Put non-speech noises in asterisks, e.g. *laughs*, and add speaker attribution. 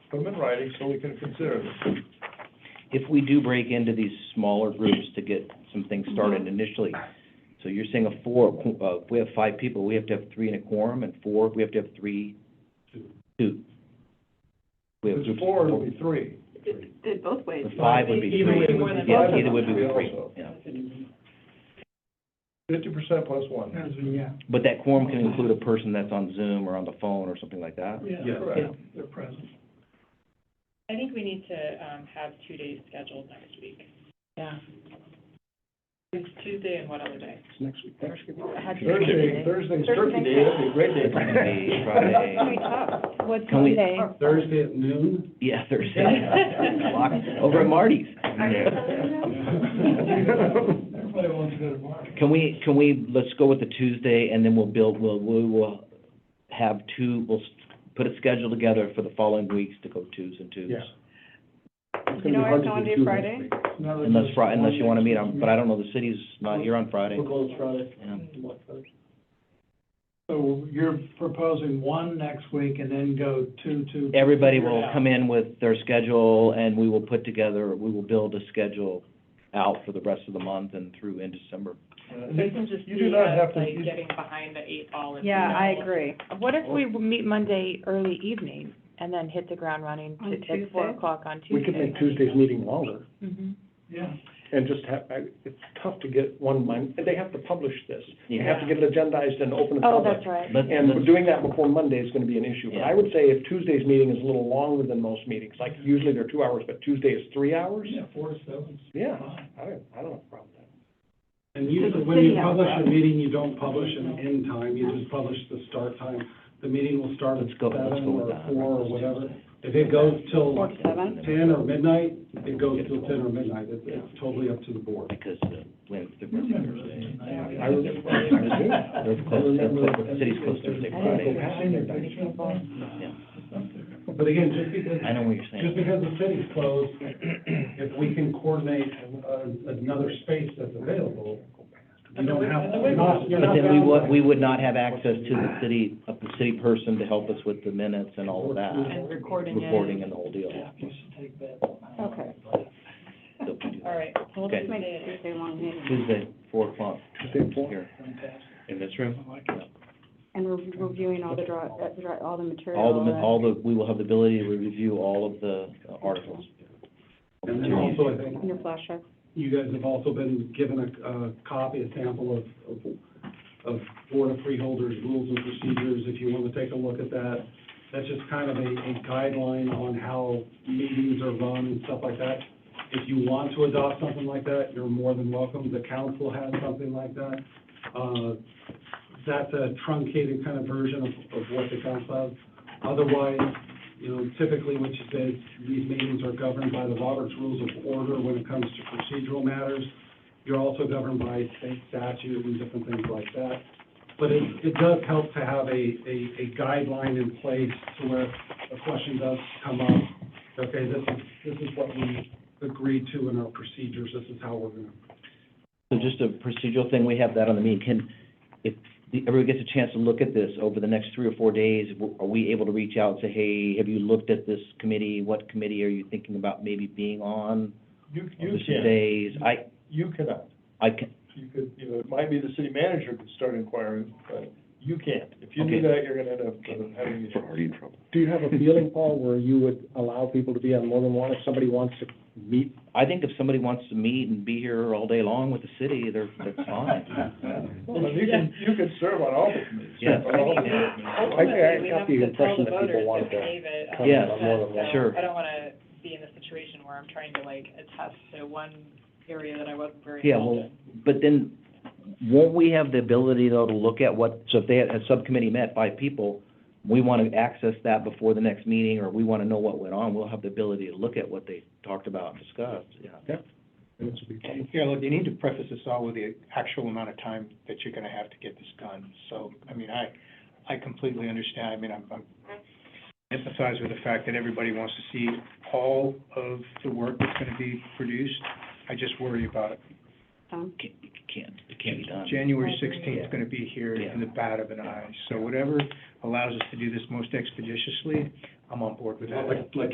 Speaker 1: put them in writing so we can consider them.
Speaker 2: If we do break into these smaller groups to get some things started initially, so you're saying a four, uh, if we have five people, we have to have three in a quorum, and four, we have to have three? Two. We have
Speaker 1: If it's four, it'll be three.
Speaker 3: It did both ways.
Speaker 2: The five would be
Speaker 3: Either
Speaker 2: three,
Speaker 3: way,
Speaker 2: It
Speaker 3: more
Speaker 2: would
Speaker 3: than
Speaker 2: be- yeah,
Speaker 3: one.
Speaker 2: either would be
Speaker 1: Yeah.
Speaker 2: three, yeah.
Speaker 1: Fifty percent plus one.
Speaker 4: Yeah,
Speaker 2: But that quorum can include a person that's on Zoom or on the phone or something like that?
Speaker 4: yeah,
Speaker 1: Yeah. Correct.
Speaker 4: they're present.
Speaker 5: I think we need to, um, have two days scheduled next week.
Speaker 3: Yeah.
Speaker 5: It's Tuesday and what other day?
Speaker 4: It's next week.
Speaker 1: Thursday, Thursday's turkey day, that'd be a great day.
Speaker 2: It's gonna be
Speaker 1: *laughs*
Speaker 2: Friday.
Speaker 6: What's
Speaker 2: Can we-
Speaker 6: Monday?
Speaker 4: Thursday at noon?
Speaker 2: Yeah, Thursday, *laughs* o'clock, over at Marty's.
Speaker 4: Everybody wants to go to Mark.
Speaker 2: Can we, can we, let's go with the Tuesday, and then we'll build, we'll, we will have two, we'll s- put a schedule together for the following weeks to go twos and twos.
Speaker 4: Yeah.
Speaker 3: You know, I on do Friday.
Speaker 2: Unless Fri- unless you wanna meet on, but I don't know, the city's not here on Friday.
Speaker 7: We're closed Friday.
Speaker 2: Yeah.
Speaker 4: So you're proposing one next week and then go two, two?
Speaker 2: Everybody will come in with their schedule, and we will put together, we will build a schedule out for the rest of the month and through in December.
Speaker 5: This can just
Speaker 1: You do
Speaker 5: be
Speaker 1: not
Speaker 5: us,
Speaker 1: have to-
Speaker 5: like,
Speaker 1: you-
Speaker 5: getting behind the eight ball and.
Speaker 6: Yeah,
Speaker 5: you know,
Speaker 6: I agree.
Speaker 3: What if we meet Monday early evening and then hit the ground running
Speaker 6: On
Speaker 3: to, at four
Speaker 6: Tuesday? Mm-hmm.
Speaker 3: o'clock on Tuesday?
Speaker 8: We could make Tuesday's meeting longer
Speaker 3: Mhm.
Speaker 4: Yeah.
Speaker 8: and just have, I- it's tough to get one Mon, they have to publish this. They
Speaker 2: Yeah.
Speaker 8: have to get it agendized and open to
Speaker 3: Oh,
Speaker 8: public.
Speaker 3: that's right.
Speaker 2: Let's-
Speaker 8: And
Speaker 2: let's-
Speaker 8: doing that before Monday is gonna be an issue. But
Speaker 2: Yeah.
Speaker 8: I would say if Tuesday's meeting is a little longer than most meetings, like usually they're two hours, but Tuesday is three hours?
Speaker 4: Yeah, four to seven.
Speaker 8: Yeah, I don't, I don't have a problem with that.
Speaker 4: And usually when you publish a meeting, you don't publish an end time, you just publish the start time. The meeting will start at
Speaker 2: Let's go, let's
Speaker 4: seven
Speaker 2: go with
Speaker 4: or
Speaker 2: that.
Speaker 4: four or whatever.
Speaker 2: Tuesday.
Speaker 4: If it goes till
Speaker 3: Four to seven?
Speaker 4: ten or midnight, it goes till ten or midnight. It's, it's totally up to the board.
Speaker 2: Because the, when, the Thursday.
Speaker 8: I was-
Speaker 2: They're closed, they're closed, the city's closed Thursday, Friday.
Speaker 4: But again, just because.
Speaker 2: I know what you're saying.
Speaker 4: Just because the city's closed, if we can coordinate uh, another space that's available, you don't have, you're not, you're
Speaker 2: But
Speaker 4: not
Speaker 2: then we would,
Speaker 4: bound by.
Speaker 2: we would not have access to the city, a city person to help us with the minutes and all of that,
Speaker 5: And recording it.
Speaker 2: recording and the whole deal.
Speaker 3: Okay.
Speaker 2: So if we do
Speaker 5: All
Speaker 2: that.
Speaker 5: right, we'll
Speaker 2: Okay.
Speaker 5: just
Speaker 3: Make
Speaker 5: say it.
Speaker 3: Tuesday long meeting.
Speaker 2: Tuesday, four o'clock.
Speaker 8: Tuesday at four?
Speaker 2: Here. In this room?
Speaker 3: And we're reviewing all the draw, uh, draw- all the material.
Speaker 2: All the,
Speaker 3: and-
Speaker 2: all the, we will have the ability to review all of the uh, articles.
Speaker 4: And then also, I
Speaker 3: and uh, Your
Speaker 4: think,
Speaker 3: flash drive.
Speaker 4: you guys have also been given a, a copy, a sample of, of- of Board of Freeholders rules and procedures, if you want to take a look at that. That's just kind of a, a guideline on how meetings are run and stuff like that. If you want to adopt something like that, you're more than welcome. The council has something like that. Uh, that's a truncated kind of version of, of what the council has. Otherwise, you know, typically what you say is these meetings are governed by the Roberts Rules of Order when it comes to procedural matters. You're also governed by state statute and different things like that. But it, it does help to have a, a, a guideline in place to where a question does come up. Okay, this is, this is what we agreed to in our procedures. This is how we're gonna
Speaker 2: So just a procedural thing, we have that on the meeting. Can, if the- everyone gets a chance to look at this over the next three or four days, w- are we able to reach out and say, hey, have you looked at this committee? What committee are you thinking about maybe being on?
Speaker 1: You,
Speaker 2: on
Speaker 1: you
Speaker 2: this
Speaker 1: can,
Speaker 2: days? I,
Speaker 1: you cannot.
Speaker 2: I can,
Speaker 1: You could, you know, it might be the city manager could start inquiring, but you can't. If you do
Speaker 2: Okay.
Speaker 1: that, you're gonna end up uh, having issues.
Speaker 8: Do you have a feeling, Paul, where you would allow people to be on more than one, if somebody wants to meet?
Speaker 2: I think if somebody wants to meet and be here all day long with the city, they're, that's fine.
Speaker 1: Well, and you can, you can serve on all the committees.
Speaker 2: Yeah.
Speaker 1: on all the committees.
Speaker 8: *laughs* I
Speaker 5: Ultimately, we
Speaker 8: got
Speaker 5: have
Speaker 8: the
Speaker 5: to tell
Speaker 8: impression
Speaker 5: the
Speaker 8: that people
Speaker 5: voters
Speaker 8: wanted
Speaker 5: that
Speaker 8: to
Speaker 5: David, um,
Speaker 8: come
Speaker 2: Yes.
Speaker 8: on more than
Speaker 5: says,
Speaker 2: one.
Speaker 5: so
Speaker 2: Sure.
Speaker 5: I don't wanna be in the situation where I'm trying to like attest to one area that I wasn't very
Speaker 2: Yeah,
Speaker 5: involved
Speaker 2: well,
Speaker 5: in.
Speaker 2: But then, won't we have the ability though to look at what, so if they had, a subcommittee met by people, we want to access that before the next meeting, or we want to know what went on, we'll have the ability to look at what they talked about and discussed, yeah.
Speaker 9: Yeah, look, you need to preface this all with the actual amount of time that you're gonna have to get this done. So, I mean, I, I completely understand, I mean, I'm, I'm empathize with the fact that everybody wants to see all of the work that's gonna be produced. I just worry about it.
Speaker 3: Um,
Speaker 2: Can't, can't, it can't be done.
Speaker 9: January sixteenth is gonna be here
Speaker 2: Yeah.
Speaker 9: in the bat of an eye. So whatever allows us to do this most expeditiously, I'm on board with that.
Speaker 4: Like, like